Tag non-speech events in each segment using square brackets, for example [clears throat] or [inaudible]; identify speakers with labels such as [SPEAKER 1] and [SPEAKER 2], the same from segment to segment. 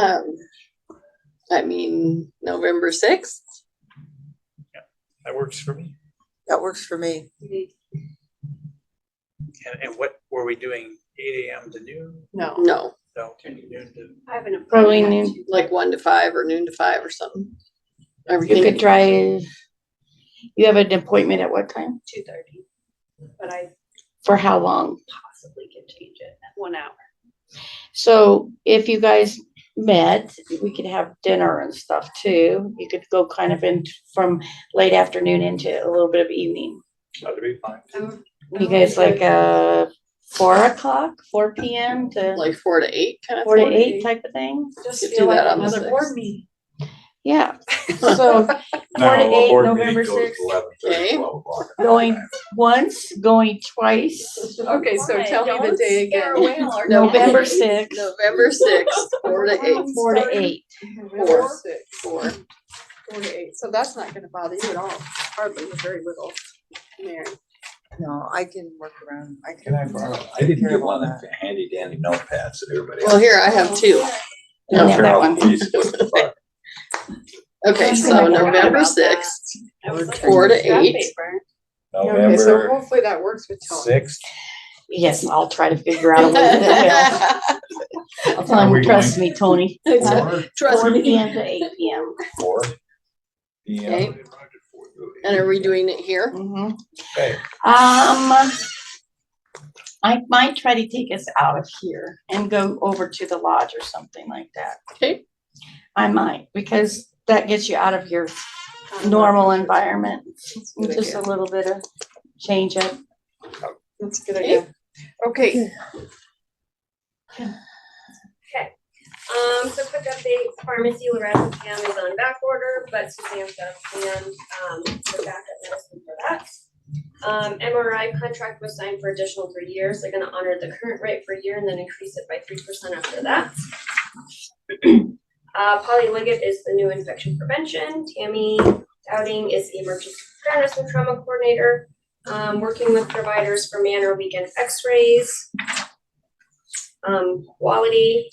[SPEAKER 1] Um, I mean, November sixth,
[SPEAKER 2] That works for me.
[SPEAKER 3] That works for me.
[SPEAKER 2] And, and what were we doing? Eight AM to noon?
[SPEAKER 4] No.
[SPEAKER 1] no,
[SPEAKER 2] No, noon to,
[SPEAKER 4] I have an.
[SPEAKER 5] Probably
[SPEAKER 4] appointment.
[SPEAKER 1] like one to five or noon to five or something.
[SPEAKER 5] You could
[SPEAKER 1] Everything,
[SPEAKER 5] try, you have an appointment at what time?
[SPEAKER 4] Two thirty, but I
[SPEAKER 5] For how long?
[SPEAKER 4] possibly could change it at one hour.
[SPEAKER 5] So if you guys met, we could have dinner and stuff too. You could go kind of in from late afternoon into a little bit of evening.
[SPEAKER 2] that'd be fine.
[SPEAKER 4] Um,
[SPEAKER 5] You guys like, uh, four o'clock, four P M to
[SPEAKER 1] like four to eight kind of.
[SPEAKER 5] four to
[SPEAKER 1] thing.
[SPEAKER 5] eight type of thing?
[SPEAKER 4] Just
[SPEAKER 1] Could
[SPEAKER 4] feel
[SPEAKER 1] do
[SPEAKER 4] like
[SPEAKER 1] that on the
[SPEAKER 4] another
[SPEAKER 1] sixth.
[SPEAKER 4] board meeting.
[SPEAKER 5] Yeah, so four to eight, November sixth,
[SPEAKER 1] Okay.
[SPEAKER 5] going once, going
[SPEAKER 1] [laughs]
[SPEAKER 5] twice.
[SPEAKER 4] Okay,
[SPEAKER 6] so tell me the day again. [laughs]
[SPEAKER 5] November sixth,
[SPEAKER 1] November sixth, four to
[SPEAKER 5] [laughs]
[SPEAKER 1] eight.
[SPEAKER 5] four to eight.
[SPEAKER 1] Four, four.
[SPEAKER 6] Four to eight, so that's not gonna bother you at all, hardly, or very little. Mary,
[SPEAKER 3] No, I can work around. I
[SPEAKER 7] Can I
[SPEAKER 3] can.
[SPEAKER 7] borrow?
[SPEAKER 3] take
[SPEAKER 7] I didn't
[SPEAKER 3] care
[SPEAKER 7] get
[SPEAKER 3] of all
[SPEAKER 7] one of
[SPEAKER 3] that.
[SPEAKER 7] the handy dandy notepads that everybody.
[SPEAKER 1] Well, here I have two.
[SPEAKER 5] I don't have that one. [laughs]
[SPEAKER 1] Okay, so November sixth,
[SPEAKER 5] [laughs]
[SPEAKER 1] Four to eight.
[SPEAKER 6] okay, so
[SPEAKER 7] November
[SPEAKER 6] hopefully that works with Tony.
[SPEAKER 7] sixth.
[SPEAKER 5] Yes, I'll try to figure
[SPEAKER 1] [laughs]
[SPEAKER 5] out a way that will.
[SPEAKER 7] Are we
[SPEAKER 5] trust me, Tony.
[SPEAKER 7] Four,
[SPEAKER 1] Trust
[SPEAKER 5] Four P
[SPEAKER 1] me.
[SPEAKER 5] M to eight P M.
[SPEAKER 7] four.
[SPEAKER 1] Okay.
[SPEAKER 7] Yeah.
[SPEAKER 1] And are we doing it here?
[SPEAKER 5] Um,
[SPEAKER 7] Okay.
[SPEAKER 5] I Um, might try to take us out of here and go over to the lodge or something like that.
[SPEAKER 1] Okay.
[SPEAKER 5] I might, because that gets you out of your normal environment. Just a little bit of change up.
[SPEAKER 6] That's a good idea. Okay,
[SPEAKER 8] Um, so quick update, pharmacy Lorazepam is on back order, but Suzanne's got a plan, um, for backup medicine for that. Um, MRI contract was signed for additional three years, they're gonna honor the current rate for a year and then increase it by three percent after that. [clears throat] Uh, Polly Liggett is the new infection prevention, Tammy Dowding is the emergency preparedness and trauma coordinator, um, working with providers for manor weekend x-rays. Um, quality,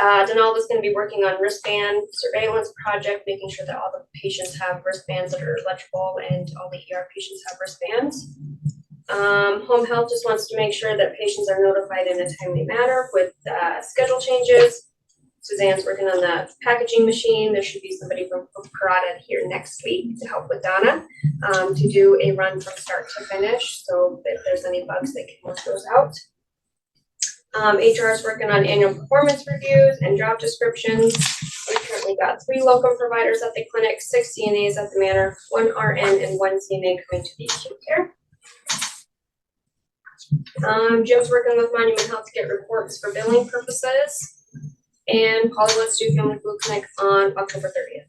[SPEAKER 8] uh, Denal is gonna be working on wristband surveillance project, making sure that all the patients have wristbands that are electrical and all the ER patients have wristbands. Um, home health just wants to make sure that patients are notified in a timely manner with, uh, schedule changes. Suzanne's working on the packaging machine. There should be somebody from Parada here next week to help with Donna, um, to do a run from start to finish. So if there's any bugs, they can work those out. Um, HR is working on annual performance reviews and job descriptions. We currently got three locum providers at the clinic, six CNAs at the manor, one RN and one CNA coming to the acute care. Um, Jim's working with Monument Health to get reports for billing purposes. And Polly wants to do family food clinic on October thirtieth.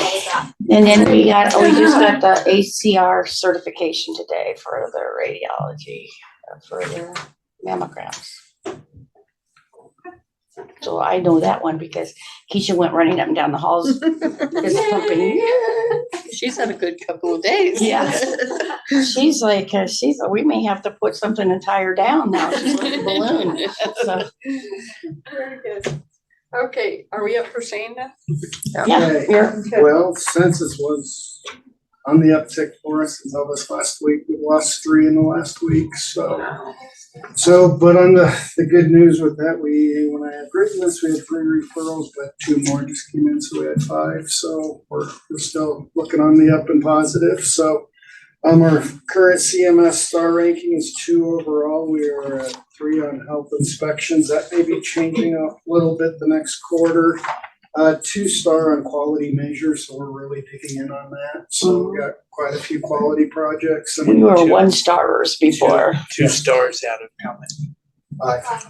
[SPEAKER 8] All of that.
[SPEAKER 5] And then we got, oh, we just got the ACR certification today for the radiology, uh, for the mammograms. So I know that one because Keisha went running up and down the halls.
[SPEAKER 8] [laughs]
[SPEAKER 5] This pumping.
[SPEAKER 1] She's had a good couple of days. [laughs]
[SPEAKER 5] Yeah. She's like, uh, she's, we may have to put something entire down now. She's like a balloon. uh, So,
[SPEAKER 6] very good. Okay, are we up for Shane now?
[SPEAKER 5] yeah, you're-
[SPEAKER 9] Well, census was on the uptick for us until this last week. We lost three in the last week, so. So, but on the, the good news with that, we, when I had written this, we had three referrals, but two more just came in, so we had five. So we're, we're still looking on the up and positive, so. Um, our current CMS star ranking is two overall. We are at three on health inspections. That may be changing a little bit the next quarter uh, two star on quality measures, so we're really digging in on that. So we got quite a few quality projects
[SPEAKER 5] we
[SPEAKER 9] and
[SPEAKER 5] were one starers before.
[SPEAKER 2] Two stars out of how many?
[SPEAKER 9] I, I,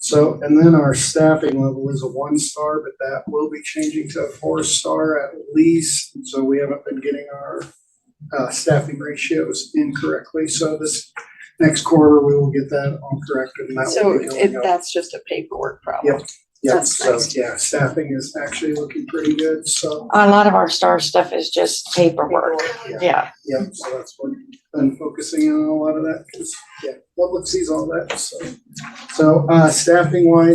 [SPEAKER 9] so, and then our staffing level is a one star, but that will be changing to a four star at least. So we haven't been getting our uh, staffing ratios incorrectly. So this next quarter, we will get that all corrected and that
[SPEAKER 6] So
[SPEAKER 9] will be
[SPEAKER 6] it,
[SPEAKER 9] going up.
[SPEAKER 6] that's just a paperwork problem.
[SPEAKER 9] Yeah,
[SPEAKER 6] that's
[SPEAKER 9] so,
[SPEAKER 6] nice.
[SPEAKER 9] yeah, staffing is actually looking pretty good, so,
[SPEAKER 5] A lot of our star stuff is just paperwork.
[SPEAKER 9] yeah.
[SPEAKER 5] Yeah.
[SPEAKER 9] Yeah, so that's what I'm focusing on a lot of that, because, yeah, public sees all that, so. So, uh, staffing wise,